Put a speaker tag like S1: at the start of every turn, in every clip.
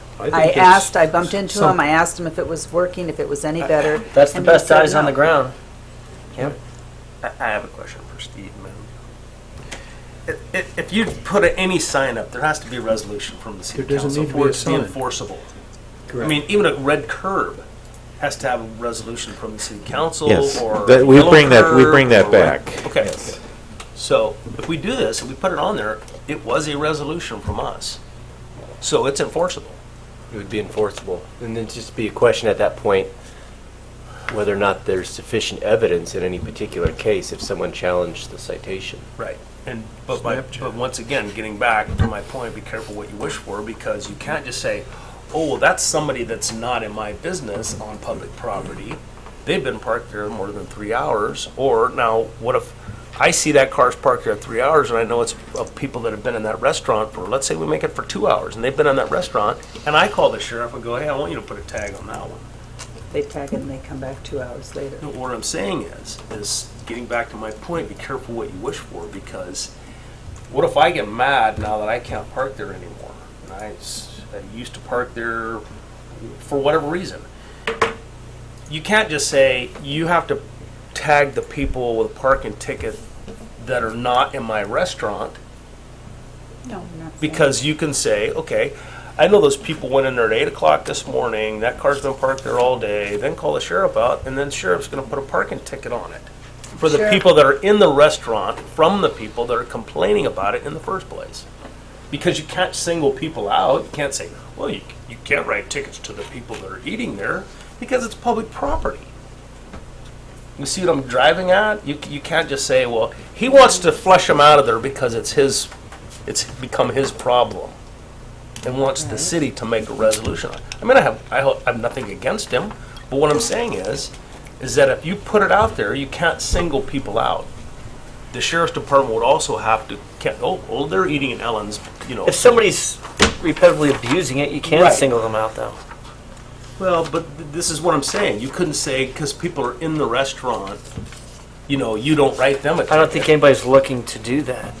S1: think
S2: I
S1: there's
S2: asked, I bumped into
S1: some-
S2: him, I asked him if it was working, if it was any better.
S3: Uh, That's the
S2: and he
S3: best
S2: said
S3: eyes on
S2: no.
S3: the ground.
S1: Yep.
S4: I, I have a question for Steve, man. If- If, if you put any sign up, there has to be a resolution from the city
S1: There doesn't
S4: council
S1: need to
S4: for
S1: be a
S4: it to be
S1: sign.
S4: enforceable. I
S1: Correct.
S4: mean, even a red curb has to have a resolution from the city council
S5: Yes,
S4: or.
S5: that- we
S4: yellow
S5: bring that- we
S4: curb
S5: bring that
S4: or red-
S5: back.
S4: Okay. So if we do this, if we put it on there, it was a resolution from us. So it's enforceable.
S6: It would be enforceable. And then just be a question at that point, whether or not there's sufficient evidence in any particular case if someone challenged the citation.
S4: Right. And, but by, but once again, getting back to my point, be careful what you wish for, because you can't just say, oh, well, that's somebody that's not in my business on public property. They've been parked there more than three hours, or now, what if I see that car's parked there three hours, and I know it's of people that have been in that restaurant for, let's say we make it for two hours, and they've been in that restaurant, and I call the sheriff and go, hey, I want you to put a tag on that one.
S2: They tag it and they come back two hours later.
S4: No, what I'm saying is, is getting back to my point, be careful what you wish for, because what if I get mad now that I can't park there anymore? And I, s- I used to park there for whatever reason. You can't just say, you have to tag the people with a parking ticket that are not in my restaurant,
S2: No, we're not saying-
S4: because you can say, okay, I know those people went in there at eight o'clock this morning, that car's been parked there all day, then call the sheriff out, and then sheriff's gonna put a parking ticket on it. For the
S2: Sure.
S4: people that are in the restaurant, from the people that are complaining about it in the first place. Because you can't single people out, you can't say, well, you, you can't write tickets to the people that are eating there, because it's public property. You see what I'm driving at? You, you can't just say, well, he wants to flush him out of there because it's his, it's become his problem. And wants the city to make a resolution. on it. I mean, I have, I ho- I have nothing against him, but what I'm saying is, is that if you put it out there, you can't single people out. The sheriff's department would also have to, can't, oh, oh, they're eating in Ellen's, you know.
S3: If somebody's repetitively abusing it, you can
S4: Right.
S3: single them out, though.
S4: Well, but th- this is what I'm saying. You couldn't say, because people are in the restaurant, you know, you don't write them a ticket.
S3: I don't think anybody's looking to do that.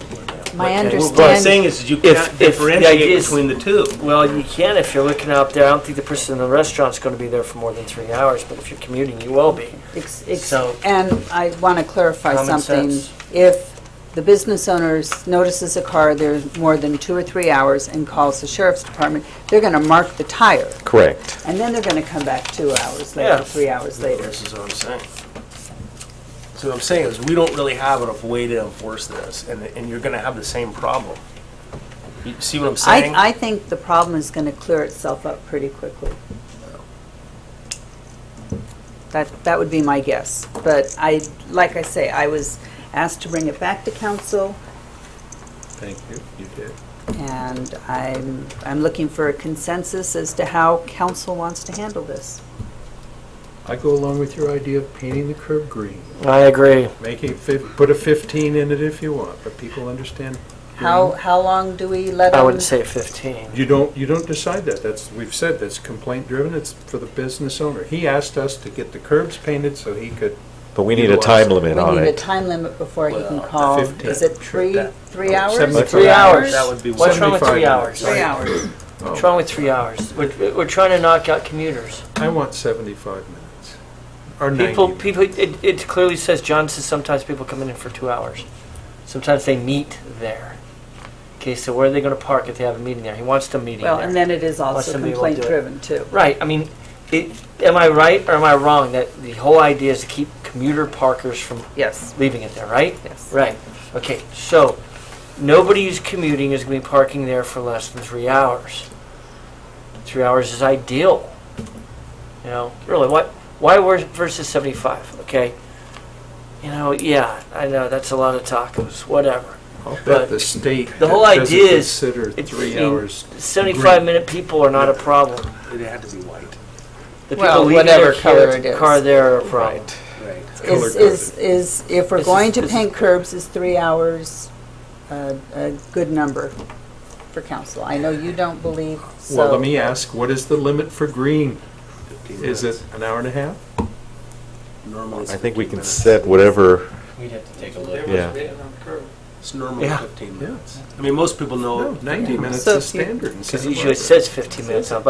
S2: My
S3: Okay, well,
S4: Well, What I'm saying
S2: understanding,
S4: is, is you
S3: If-
S4: can't
S3: if the idea
S4: differentiate
S3: is-
S4: between the two.
S3: Well, you can if you're looking out there. I don't think the person in the restaurant's going to be there for more than three hours, but if you're commuting, you will be.
S2: ex- ex-
S3: so-
S2: and I want to clarify
S3: Common
S2: something.
S3: sense.
S2: If the business owner notices a car there more than two or three hours and calls the sheriff's department, they're going to mark the tire,
S5: Correct.
S2: and then they're going to come back two hours
S3: Yeah.
S2: later, three hours later.
S4: This is what I'm saying. So what I'm saying is, we don't really have enough way to enforce this, and, and you're gonna have the same problem. You see what I'm saying?
S2: I, I think the problem is going to clear itself up pretty quickly. That, that would be my guess. But I, like I say, I was asked to bring it back to council,
S1: Thank you, you did.
S2: and I'm, I'm looking for a consensus as to how council wants to handle this.
S1: I go along with your idea of painting the curb green.
S3: I agree.
S1: Make a, fif- put a 15 in it if you want, but people understand.
S2: How, how long do we let
S3: Mm-hmm. I
S2: them?
S3: would say 15.
S1: You don't, you don't decide that. That's, we've said that's complaint driven. It's for the business owner. He asked us to get the curbs painted so he could,
S5: But we need a time
S2: We
S5: limit on
S2: need a
S5: it.
S2: time limit before he can
S4: Well,
S2: call.
S1: 15.
S2: Is it three,
S4: That-
S2: three hours?
S1: seventy-five.
S2: Three hours?
S4: That would be
S3: What's wrong with
S1: 75
S3: three
S1: minutes.
S3: hours?
S2: Three hours.
S1: oh,
S3: What's wrong with three hours? We're, we're trying to knock out commuters.
S1: I want 75 minutes. Or 90
S3: People,
S1: minutes.
S3: people. It, it clearly says John says sometimes people come in for two hours. Sometimes they meet there. Okay, so where are they going to park if they have a meeting there? He wants them meeting
S2: Well,
S3: there.
S2: and then it is
S3: Unless
S2: also
S3: somebody will do it.
S2: complaint driven too.
S3: Right. I mean, it, am I right or am I wrong that the whole idea is to keep commuter parkers from
S2: Yes,
S3: leaving it there, right?
S2: yes.
S3: Right. Okay. So nobody who's commuting is going to be parking there for less than three hours. Three hours is ideal. You know, really. What? Why wor- versus seventy-five? Okay. You know, yeah, I know that's a lot of tacos. Whatever.
S1: I'll bet
S3: but
S1: the state
S3: the whole
S1: doesn't
S3: idea is
S1: consider
S3: it's-
S1: three
S3: I mean,
S1: hours.
S3: Seventy-five minute people are not a problem.
S4: It had to be white.
S3: The people
S2: Well,
S3: leaving
S2: whatever
S3: their car,
S2: color it is.
S3: car there are a problem.
S4: Right.
S2: Is,
S1: color
S2: is, is, if we're
S3: This
S2: going
S3: is-
S2: to
S3: this
S2: paint curbs, is three hours a, a good number for council? I know you don't believe, so.
S1: Well, let me ask, what is the limit for green? Is it an hour and a half?
S4: Normally it's
S5: I think
S4: 15
S5: we can
S4: minutes.
S5: set whatever,
S6: We'd have to take a look.
S5: yeah.
S4: It's normally
S3: Yeah.
S4: fifteen
S1: Yeah.
S4: minutes. I mean, most people know.
S1: No, 90 minutes
S2: So
S1: is
S2: if you-
S1: standard. in
S3: Because
S1: Santa
S3: usually it
S1: Barbara.
S3: says fifteen minutes on